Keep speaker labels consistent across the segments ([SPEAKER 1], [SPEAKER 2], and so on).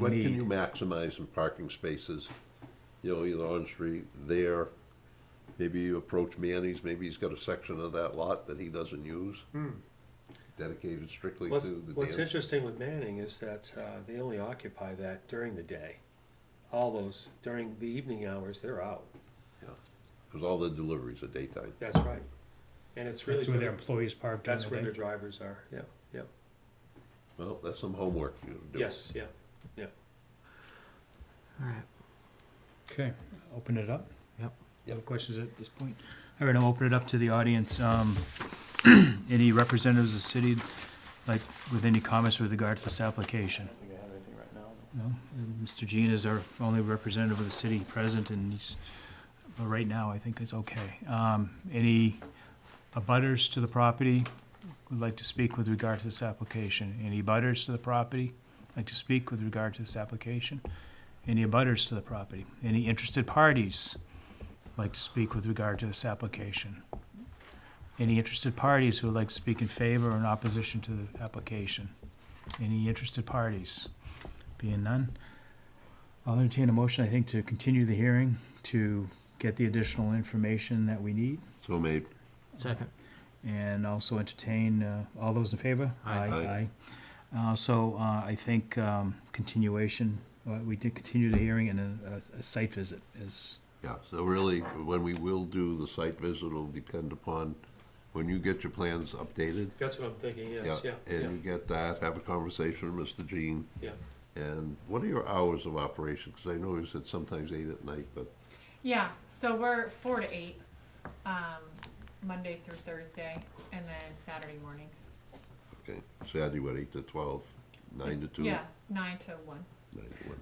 [SPEAKER 1] When can you maximize in parking spaces, you know, either on street, there? Maybe you approach Manny's, maybe he's got a section of that lot that he doesn't use. Dedicated strictly
[SPEAKER 2] Hmm. What's,
[SPEAKER 1] to the
[SPEAKER 2] what's
[SPEAKER 1] dance.
[SPEAKER 2] interesting with Manning is that uh, they only occupy that during the day. All those, during the evening hours, they're out.
[SPEAKER 1] Cause all the deliveries are daytime.
[SPEAKER 2] That's right. And it's really,
[SPEAKER 3] That's where
[SPEAKER 2] for-
[SPEAKER 3] their employees park during
[SPEAKER 2] that's where
[SPEAKER 3] the
[SPEAKER 2] their
[SPEAKER 3] day.
[SPEAKER 2] drivers are. Yeah, yeah.
[SPEAKER 1] Well, that's some homework for you to do.
[SPEAKER 2] Yes, yeah.
[SPEAKER 3] Okay, open it up.
[SPEAKER 4] Yep.
[SPEAKER 3] Other questions at this point? All right, I'll open it up to the audience. Um, any representatives of the city, like, with any comments with regard to this application?
[SPEAKER 5] think I have anything right now.
[SPEAKER 3] No? And Mr. Jean is our only representative of the city present, and he's, uh, right now, I think it's okay. Um, any abutters to the property would like to speak with regard to this application? Any abutters to the property like to speak with regard to this application? Any abutters to the property? Any interested parties like to speak with regard to this application? Any interested parties who would like to speak in favor or in opposition to the application? Any interested parties? Being none, I'll entertain a motion, I think, to continue the hearing to get the additional information that we need.
[SPEAKER 1] So made.
[SPEAKER 4] Second.
[SPEAKER 3] And also entertain, uh, all those in favor?
[SPEAKER 4] Aye.
[SPEAKER 1] Aye.
[SPEAKER 3] Aye. Uh, so, uh, I think, um, continuation, uh, we did continue the hearing and a, a- a site visit is,
[SPEAKER 1] Yeah, so really, when we will do the site visit will depend upon when you get your plans updated.
[SPEAKER 2] That's what I'm thinking, yes, yeah, yeah,
[SPEAKER 1] And you get that, have a conversation with Mr. Jean.
[SPEAKER 2] yeah.
[SPEAKER 1] And what are your hours of operation? Because I know you said sometimes eight at night, but
[SPEAKER 6] Yeah, so we're four to eight, um, Monday through Thursday, and then Saturday mornings.
[SPEAKER 1] okay, Saturday, what, eight to twelve, nine to two?
[SPEAKER 6] Yeah, nine to one.
[SPEAKER 1] Nine to one.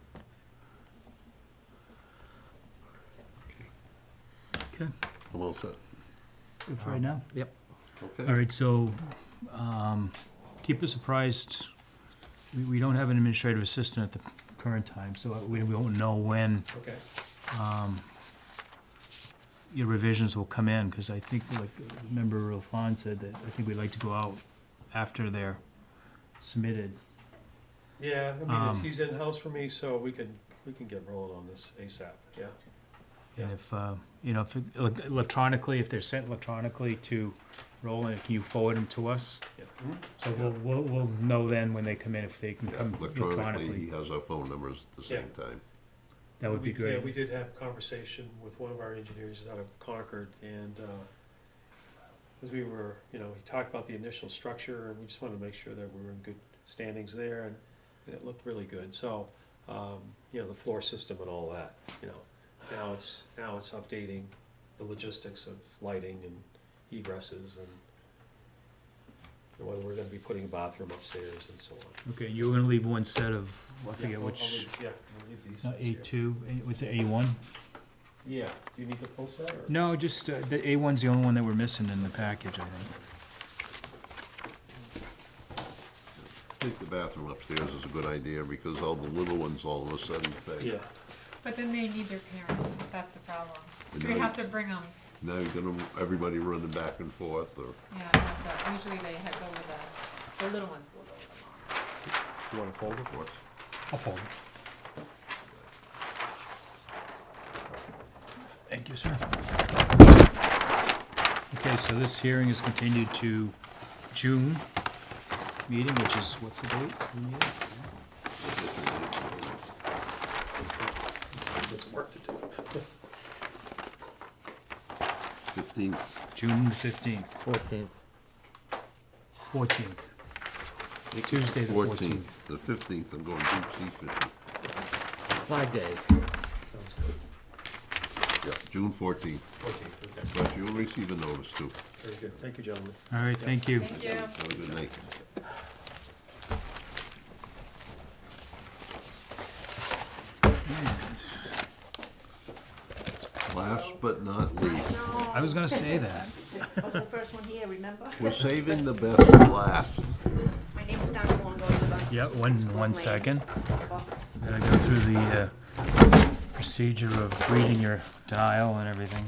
[SPEAKER 3] Okay.
[SPEAKER 1] I'm all set.
[SPEAKER 3] good for right now. All
[SPEAKER 1] Okay,
[SPEAKER 3] right, so, um, keep us apprised, we, we don't have an administrative assistant at the current time, so we, we won't know when
[SPEAKER 2] Okay.
[SPEAKER 3] your revisions will come in, because I think, like, member Rafan said that, I think we'd like to go out after they're submitted.
[SPEAKER 2] Yeah, I mean, it's-
[SPEAKER 3] Um,
[SPEAKER 2] he's in-house for me, so we can, we can get rolling on this ASAP, yeah.
[SPEAKER 3] And
[SPEAKER 2] Yeah.
[SPEAKER 3] if, uh, you know, if it- elec- electronically, if they're sent electronically to Roland, can you forward them to us?
[SPEAKER 2] Yeah.
[SPEAKER 3] So we'll, we'll, we'll know then when they come in, if they can
[SPEAKER 1] Yeah,
[SPEAKER 3] come
[SPEAKER 1] electronically, he
[SPEAKER 3] electronically.
[SPEAKER 1] has our phone numbers at the same time.
[SPEAKER 3] That would be
[SPEAKER 2] We- Yeah, we
[SPEAKER 3] great.
[SPEAKER 2] did have a conversation with one of our engineers out of Concord, and, uh, as we were, you know, he talked about the initial structure, and we just wanted to make sure that we were in good standings there, and, and it looked really good, so, um, you know, the floor system and all that, you know. Now it's, now it's updating the logistics of lighting and egresses and whether we're gonna be putting a bathroom upstairs and so on.
[SPEAKER 3] Okay, you're gonna leave one set of, I
[SPEAKER 2] Yeah,
[SPEAKER 3] forget
[SPEAKER 2] I'll- I'll
[SPEAKER 3] which,
[SPEAKER 2] leave- Yeah, we'll leave these.
[SPEAKER 3] uh,
[SPEAKER 2] things
[SPEAKER 3] A
[SPEAKER 2] here.
[SPEAKER 3] two, what's it, A one?
[SPEAKER 2] Yeah, do you need the full set or?
[SPEAKER 3] No, just, uh, the A one's the only one that we're missing in the package, I think.
[SPEAKER 1] I think the bathroom upstairs is a good idea, because all the little ones all of a sudden say,
[SPEAKER 2] Yeah,
[SPEAKER 6] But then they need their parents, that's the problem. So
[SPEAKER 1] Right.
[SPEAKER 6] we have to bring them,
[SPEAKER 1] now you're gonna, everybody running back and forth, or,
[SPEAKER 6] yeah, we have to- usually they have go with the, the little ones will go with them.
[SPEAKER 2] you wanna fold it?
[SPEAKER 1] of course.
[SPEAKER 3] I'll fold it. Thank you, sir. Okay, so this hearing is continued to June meeting, which is, what's the date? June eighth?
[SPEAKER 2] There's work to do.
[SPEAKER 1] Fifteenth,
[SPEAKER 3] June fifteenth,
[SPEAKER 4] Fourteenth.
[SPEAKER 3] fourteenth. Tuesday the fourteenth.
[SPEAKER 1] fourteenth, the fifteenth, I'm going deep sea fishing.
[SPEAKER 4] Flag Day.
[SPEAKER 2] Sounds good.
[SPEAKER 1] Yeah, June fourteenth,
[SPEAKER 2] Okay, okay,
[SPEAKER 1] but you'll receive a notice too.
[SPEAKER 2] very good. Thank you, gentlemen.
[SPEAKER 3] All right, thank you.
[SPEAKER 6] Thank you.
[SPEAKER 1] Have a good night. Last but not least,
[SPEAKER 3] I was gonna say that.
[SPEAKER 7] I was the first one here, remember?
[SPEAKER 1] we're saving the best for last.
[SPEAKER 7] My name's Donna Longo, I live on 66 Broad Lane.
[SPEAKER 3] Gotta go through the, uh, procedure of reading your denial and everything.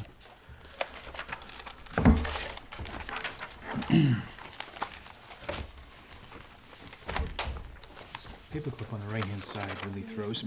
[SPEAKER 3] paperclip on the right-hand side really throws me.